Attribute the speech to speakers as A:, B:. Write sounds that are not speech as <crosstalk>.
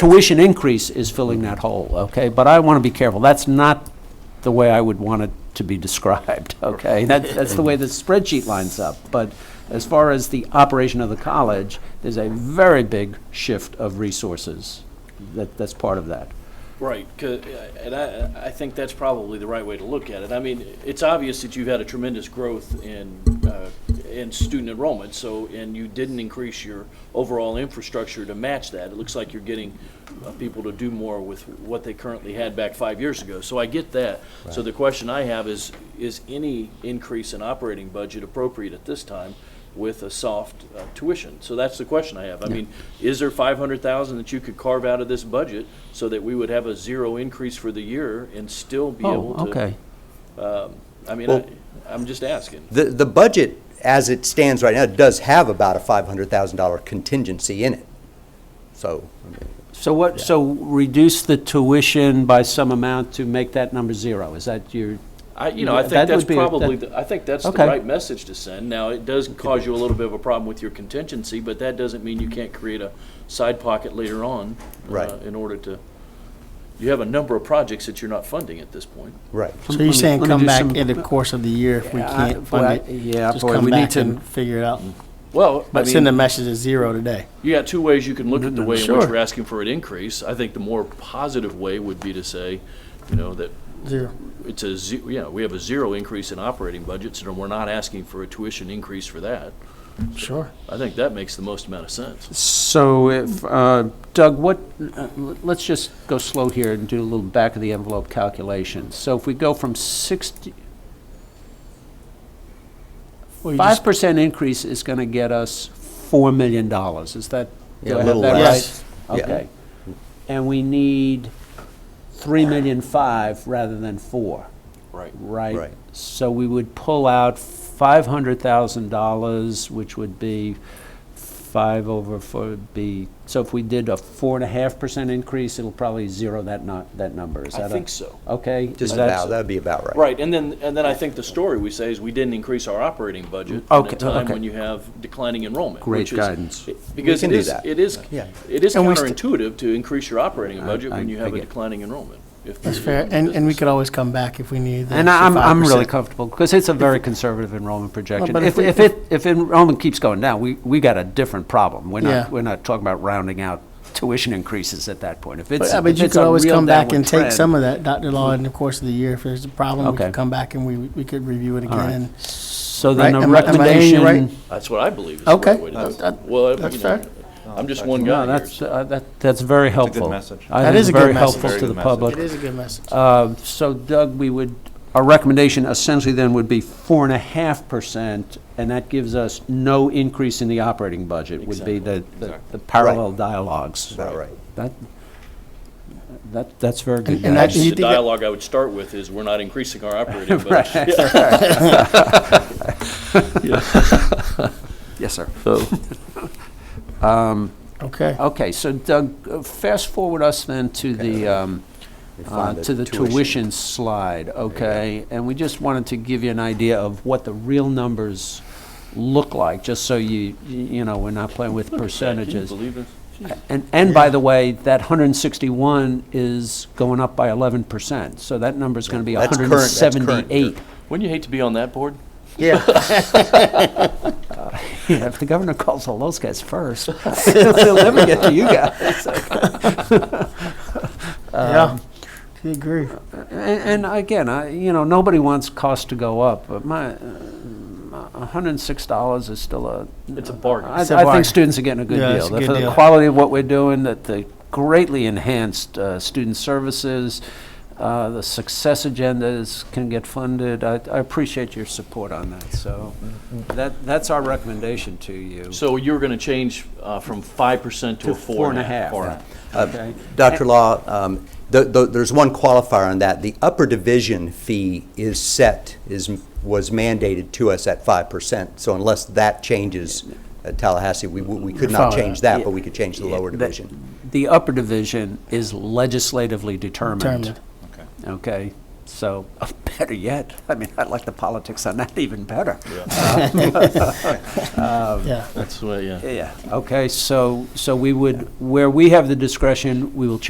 A: tuition increase is filling that hole, okay? But I want to be careful. That's not the way I would want it to be <laughs> described, okay? That, that's the way the spreadsheet lines up. But as far as the operation of the college, there's a very big shift of resources. That, that's part of that.
B: Right, 'cause- and I, I think that's probably the right way to look at it. I mean, it's obvious that you've had a tremendous growth in, uh, in student enrollment, so, and you didn't increase your overall infrastructure to match that. It looks like you're getting uh, people to do more with what they currently had back five years ago, so I get that. So the question I have is, is any increase in operating budget appropriate at this time with a soft uh, tuition? So that's the question I have. I mean, is there five hundred thousand that you could carve out of this budget so that we would have a zero increase for the year and still be able to?
A: Oh, okay.
B: I mean,
C: Well-
B: I, I'm just asking.
C: The, the budget, as it stands right now, does have about a $500,000 contingency in it. So, I mean,
A: So what, so reduce the tuition by some amount to make that number zero? Is that your?
B: I, you know, I
A: That
B: think that's
A: would be a-
B: probably,
A: that-
B: the- I think that's the
A: Okay.
B: right message to send. Now, it does cause you a little bit of a problem with your contingency, but that doesn't mean you can't create a side pocket later on. uh,
C: Right.
B: In order to, you have a number of projects that you're not funding at this point.
C: right.
D: So you're
A: Let me-
D: saying
A: let me
D: come
A: do
D: back
A: some-
D: in the course of the year if we
A: Yeah, I-
D: can't
A: well, I-
D: fund it?
A: yeah,
D: Just
A: boy, we
D: come
A: need
D: back
A: to- Mm.
D: and figure it out.
B: Well, I
D: But send a
B: mean,
D: message as zero today.
B: you got two ways you can look at the way in which
D: Sure.
B: we're asking for an increase. I think the more positive way would be to say, you know, that
D: Zero.
B: it's a, ze- yeah, we have a zero increase in operating budgets, and we're not asking for a tuition increase for that.
D: Sure.
B: I think that makes the most amount of sense.
A: So if, uh, Doug, what, uh, l- let's just go slow here and do a little back of the envelope calculation. So if we go from 60,
D: Well, you just-
A: 5% increase is going to get us $4 million, is that? do I
C: Yeah, a
A: have
C: little
A: that right?
D: less.
C: Yes. Yeah.
A: Okay. And we need 3 million 5 rather than 4
B: Right.
A: right?
C: Right.
A: So we would pull out five hundred thousand dollars, which would be five over four, would be, so if we did a four and a half percent increase, it'll probably zero that not, that number, is
B: I
A: that a-
B: think so.
A: Okay?
C: Just
A: is that-
C: about, that'd be about right.
B: Right, and then, and then I think the story we say is we didn't increase our operating budget at
A: Okay,
B: a time
A: okay.
B: when you have declining enrollment.
A: Great
B: which is-
A: guidance.
B: Because
C: We
B: it
C: can do
B: is,
C: that.
B: it is,
C: Yeah.
B: it is
D: And we st-
B: counterintuitive to increase your operating budget
A: I-
B: when you have a
A: I get-
B: declining enrollment. if
D: That's
B: you're
D: fair.
B: in
D: And, and we
B: business.
D: could always come back if we need. the
A: And I- I'm, I'm really
D: 5%.
A: comfortable, because it's a very conservative enrollment projection.
D: but
A: If,
D: if we-
A: if it, if enrollment keeps going down, we, we got a different problem. We're
D: Yeah.
A: not, we're not talking about rounding out tuition increases at that point. If it's,
D: But uh,
A: if
D: but you
A: it's
D: could
A: a
D: always
A: real
D: come back
A: downward
D: and take
A: trend-
D: some of that, Dr. Law, in the course of the year. If there's a problem, we
A: Okay.
D: could come back and we, we could review it
A: All right.
D: again.
A: So then
D: Right?
A: the
D: Am I- am I hearing you right?
A: recommendation,
B: That's what I believe is the
D: Okay,
B: right way to do
D: that- that-
B: it. Well, you
D: that's
B: know,
D: fair.
B: I'm just one
A: No,
B: guy here.
A: that's, uh, that, that's very
E: a good
A: helpful.
E: message.
A: I
D: That
A: think
D: is
A: it's
D: a good
A: very
D: message.
A: helpful
E: Very
A: to
E: good
A: the
E: message.
D: It
A: public.
D: is a good message.
A: Uh, So Doug, we would, our recommendation essentially then would be four and a half percent, and that gives us no increase in the operating budget, would be the, the- the parallel dialogues.
C: About right.
A: That, that, that's very good.
D: and
A: guidance.
D: you
B: The
D: think that-
B: dialogue I would start with is, we're not increasing our
D: <laughs>
B: operating budget. <laughs>
A: Yes, sir.
D: Okay.
A: Okay, so Doug, uh, fast forward us then to the, um,
C: You
A: uh,
C: find
A: to the tuition slide, okay? And we just wanted to give you an idea of what the real numbers look like, just so you, you you know, we're not playing with percentages.
B: Can you believe this?
A: And, and by the way, that 161 is going up by 11%, so that number's going to be
C: That's current- that's current year.
A: 178.
B: Wouldn't you hate to be on that board?
C: Yeah,
A: <laughs> Yeah, if the governor calls all those guys first, <laughs> they'll never get to you guys.
D: Yeah. I Um, agree.
A: And, and again, I, you know, nobody wants costs to go up, but my, uh, $106 is still a,
B: It's a bargain.
A: I,
D: It's a
A: I
D: bargain.
A: think students are getting a good
D: Yeah,
A: deal.
D: it's a good
A: for the
D: deal.
A: quality of what we're doing, that the greatly enhanced uh, student services, uh, the success agendas can get funded. I, I appreciate your support on that. So
B: Mm-hmm.
A: that that's our recommendation to you.
B: So you're going to change uh, from 5% to a 4 and a half. Four and a half.
A: Okay.
C: Dr. Law, um, th- th- there's one qualifier on that. The upper division fee is set, is, was mandated to us at 5%. So unless that changes at Tallahassee, we, we could not
D: Follow
C: change that, but we could change the lower
A: That-
C: division.
A: The upper division is legislatively determined.
D: Determined.
E: Okay.
A: Okay, so <laughs> better yet, I mean, I like the politics on that even better.
D: yeah.
B: That's the way, yeah.
A: Uh, Yeah, okay, so, so we would, where we have the discretion, we will change